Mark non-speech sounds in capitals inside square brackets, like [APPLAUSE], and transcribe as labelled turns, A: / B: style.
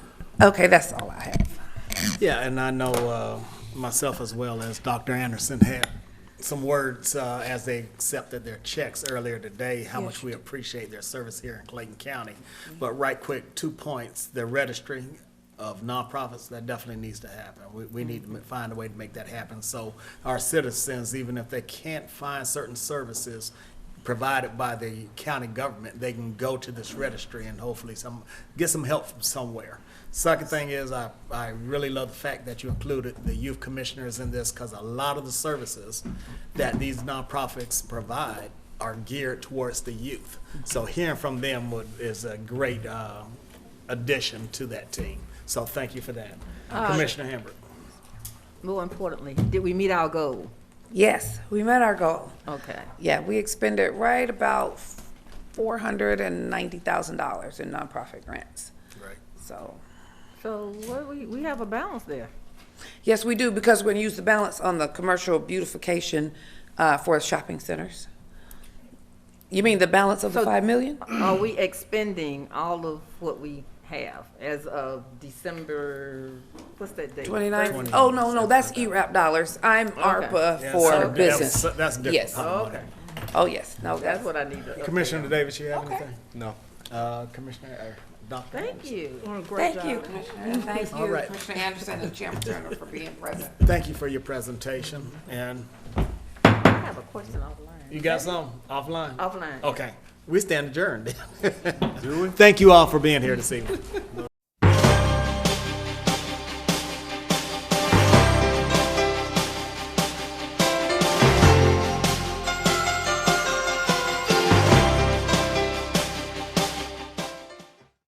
A: Okay, that's all I have.
B: [LAUGHS] Yeah, and I know uh, myself as well as Dr. Anderson had some words uh, as they accepted their checks earlier today, how much we appreciate their service here in Clayton County. But right quick, two points, the registering of nonprofits, that definitely needs to happen. We, we need to ma- find a way to make that happen. So our citizens, even if they can't find certain services, provided by the county government, they can go to this registry and hopefully some, get some help from somewhere. Second thing is, I, I really love the fact that you included the youth commissioners in this, because a lot of the services that these nonprofits provide are geared towards the youth. So hearing from them would, is a great, uh, addition to that team. So thank you for that.
A: Uh,
B: Commissioner Hamburg.
C: More importantly, did we meet our goal?
A: Yes, we met our goal.
C: Okay.
A: Yeah, we expended right about four hundred and ninety thousand dollars in nonprofit grants.
B: Right.
A: So,
C: So what we, we have a balance there.
A: yes, we do, because we're gonna use the balance on the commercial beautification, uh, for shopping centers. You mean the balance of the
C: So-
A: five million?
C: Are we expending all of what we have as of December, what's that date?
A: Twenty-nine?
B: Twenty.
A: Oh, no, no, that's ERAP dollars. I'm ARPA
B: Yeah,
A: for
B: so-
A: business.
B: that's- That's different.
A: Yes.
C: Okay,
A: Oh, yes, no, that's,
C: that's what I need to.
B: Commissioner Davis, you have
A: Okay.
B: anything? No. Uh, Commissioner, or Dr.
C: Thank you.
A: thank you, Commissioner. Thank
B: All
A: you,
B: right.
A: Commissioner Anderson and Chairman Turner for being present.
B: Thank you for your presentation, and
C: I have a question offline.
B: you got some offline?
C: Offline.
B: [LAUGHS] Okay, we stand adjourned. Do we? Thank you all for being here this evening.